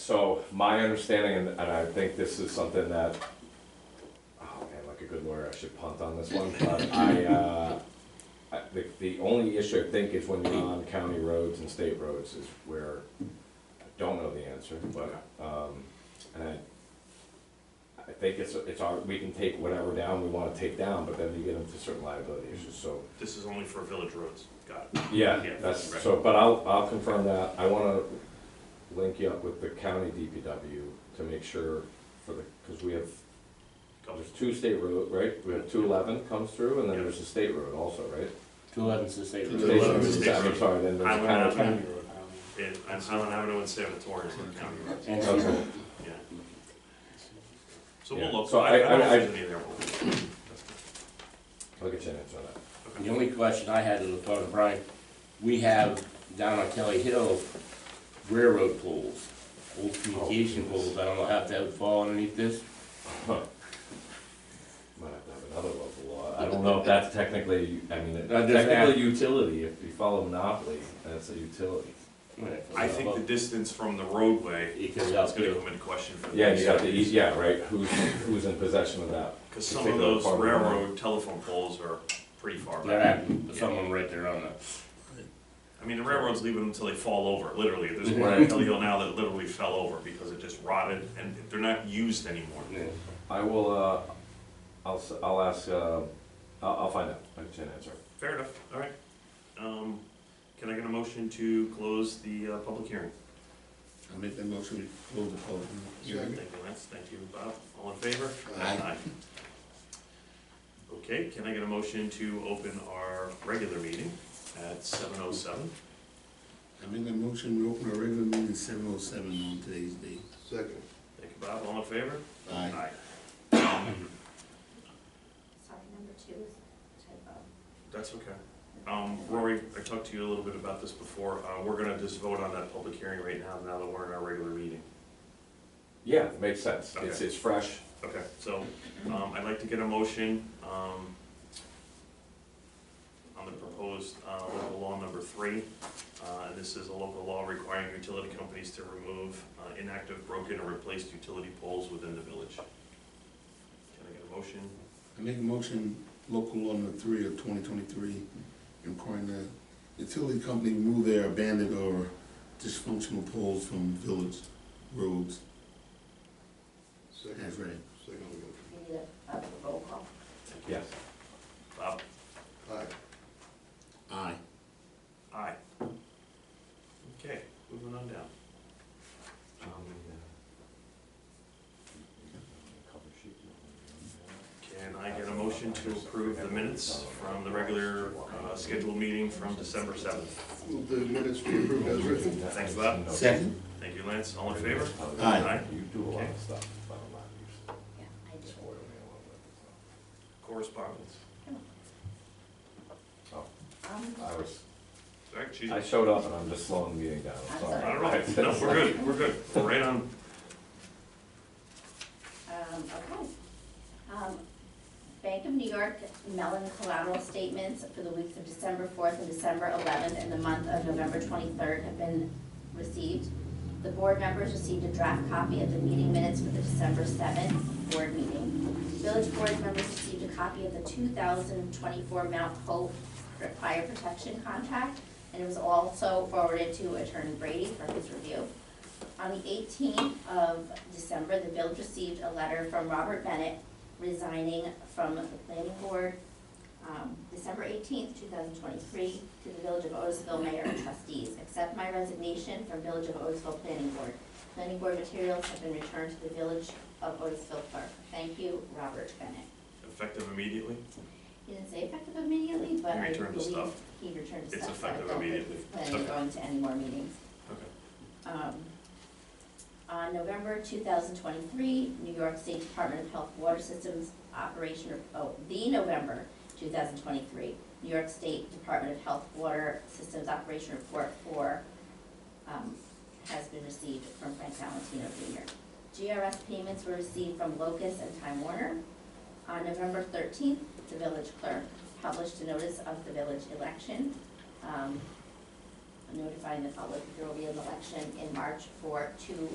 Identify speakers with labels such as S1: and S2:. S1: So my understanding, and, and I think this is something that, oh man, like a good lawyer, I should punt on this one, but I, uh, I, the, the only issue I think is when you're on county roads and state roads is where, I don't know the answer, but, um, and I, I think it's, it's our, we can take whatever down we wanna take down, but then you get into certain liability issues, so.
S2: This is only for village roads, got it.
S1: Yeah,
S2: Yeah,
S1: that's,
S2: right.
S1: so, but I'll, I'll confirm that, I wanna link you up with the county DPW to make sure for the, cause we have,
S2: Couple-
S1: there's two state road, right? We have two eleven comes through, and then
S2: Yeah.
S1: there's a state road also, right?
S3: Two eleven's the state
S4: Two
S3: road.
S4: eleven.
S1: Station-
S2: state road.
S1: I'm sorry, then there's
S2: Highland
S1: county.
S2: Avenue.
S3: County road, um,
S2: And and Highland Avenue and Salvatore are county roads,
S3: And
S1: Okay.
S2: yeah. So we'll
S1: Yeah.
S2: look,
S1: So
S2: I I
S1: I-
S2: don't know
S1: I-
S2: if there's any there. We'll- that's good.
S1: I'll get you an answer on that.
S3: the only question I had to thought of Brian, we have down on Kelly Hill railroad poles, old communication poles, I don't know how that would fall underneath this.
S1: Might have to have another local law, I don't know if that's technically, I mean, it-
S3: That doesn't
S1: Uh, technically
S3: have-
S1: utility, if you follow monopoly, that's a utility.
S2: I think the distance from the roadway
S3: It comes
S2: is
S3: out
S2: gonna
S3: too.
S2: come into question for
S1: Yeah, you got the,
S2: this.
S1: eas- yeah, right, who's, who's in possession of that?
S2: Cause some of
S1: particular
S2: those
S1: part of the road.
S2: railroad telephone poles are pretty far
S3: That
S2: back.
S3: happened, to someone right there on the,
S2: I mean, the railroads leave them until they fall over, literally, there's one
S1: Right.
S2: on Kelly Hill now that literally fell over because it just rotted and they're not used anymore.
S3: yeah.
S1: I will, uh, I'll, s- I'll ask, uh, I'll, I'll find out, I can answer.
S2: Fair enough, all right. Um, can I get a motion to close the, uh, public hearing?
S4: I make that motion to close the public hearing.
S2: Thank you, Lance, thank you, Bob, all in favor?
S4: Aye.
S2: Okay, can I get a motion to open our regular meeting at seven oh seven?
S4: I make that motion, we open our regular meeting seven oh seven on today's date.
S5: Second.
S2: Thank you, Bob, all in favor?
S4: Aye.
S6: Sorry, number two is typo.
S2: That's okay. Um, Rory, I talked to you a little bit about this before, uh, we're gonna just vote on that public hearing right now, now that we're in our regular meeting.
S1: Yeah, makes sense, it's,
S2: Okay.
S1: it's fresh,
S2: Okay, so, um, I'd like to get a motion, um, on the proposed, uh, local law number three. Uh, and this is a local law requiring utility companies to remove, uh, inactive, broken, or replaced utility poles within the village. Can I get a motion?
S4: I make a motion, local law number three of twenty twenty-three, requiring the utility company remove their abandoned or dysfunctional poles from village roads.
S5: Second.
S4: That's right.
S5: Second motion.
S6: We need a, a uh, roll call.
S1: yes.
S2: Bob?
S5: Aye.
S4: Aye.
S2: Aye. Okay, moving on down. Um, Can I get a motion to approve the minutes from the regular, uh, scheduled meeting from December seventh?
S5: Move the minutes be approved as written.
S2: Thanks, Bob.
S4: Second?
S2: Thank you, Lance, all in favor?
S4: Aye.
S1: You do a lot
S2: Okay.
S1: of stuff, but I'm not used to
S6: Yeah, I did.
S1: spoiling it
S2: Correspondence.
S1: a little bit.
S6: Um,
S1: Oh, I was,
S2: All right,
S1: I
S2: Judy.
S1: showed up and I'm just slowing the meeting down, I'm
S6: I'm
S1: sorry.
S6: sorry.
S2: I don't know, no, we're good, we're good, we're right on.
S6: um, okay. Um, Bank of New York Mellon collateral statements for the weeks of December fourth and December eleventh and the month of November twenty-third have been received. The board members received a draft copy of the meeting minutes for the December seventh board meeting. Village board members received a copy of the two thousand twenty-four Mount Hope fire protection contract, and it was also forwarded to Attorney Brady for his review. On the eighteenth of December, the village received a letter from Robert Bennett resigning from the planning board. um, December eighteenth, two thousand twenty-three, to the Village of Otisville Mayor and Trustees, accept my resignation from Village of Otisville Planning Board. Planning board materials have been returned to the Village of Otisville clerk. Thank you, Robert Bennett.
S2: Effective immediately?
S6: He didn't say effective immediately, but
S2: He
S6: I
S2: returned the
S6: believe
S2: stuff.
S6: he returned the
S2: It's
S6: stuff, so I
S2: effective
S6: don't think
S2: immediately.
S6: he's planning on
S2: Okay.
S6: going to any more meetings.
S2: Okay.
S6: Um, On November 2023, New York State Department of Health Water Systems Operation, oh, the November 2023, New York State Department of Health Water Systems Operation Report 4 um, has been received from Frank Valentino Jr. GRS payments were received from Locust and Time Warner. On November 13th, the village clerk published a notice of the village election. Um, notifying the public that there will be an election in March for two